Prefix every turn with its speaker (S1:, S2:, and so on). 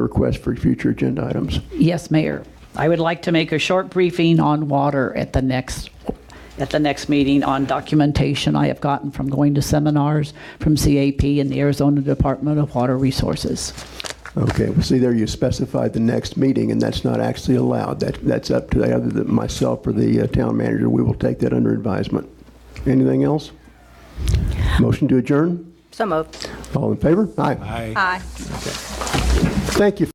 S1: requests for future agenda items?
S2: Yes, Mayor. I would like to make a short briefing on water at the next, at the next meeting on documentation I have gotten from going to seminars from CAP and the Arizona Department of Water Resources.
S1: Okay, well, see, there you specified the next meeting, and that's not actually allowed. That, that's up to either the- myself or the uh, town manager. We will take that under advisement. Anything else? Motion to adjourn?
S3: So moved.
S1: All in favor? Aye.
S3: Aye.
S1: Thank you.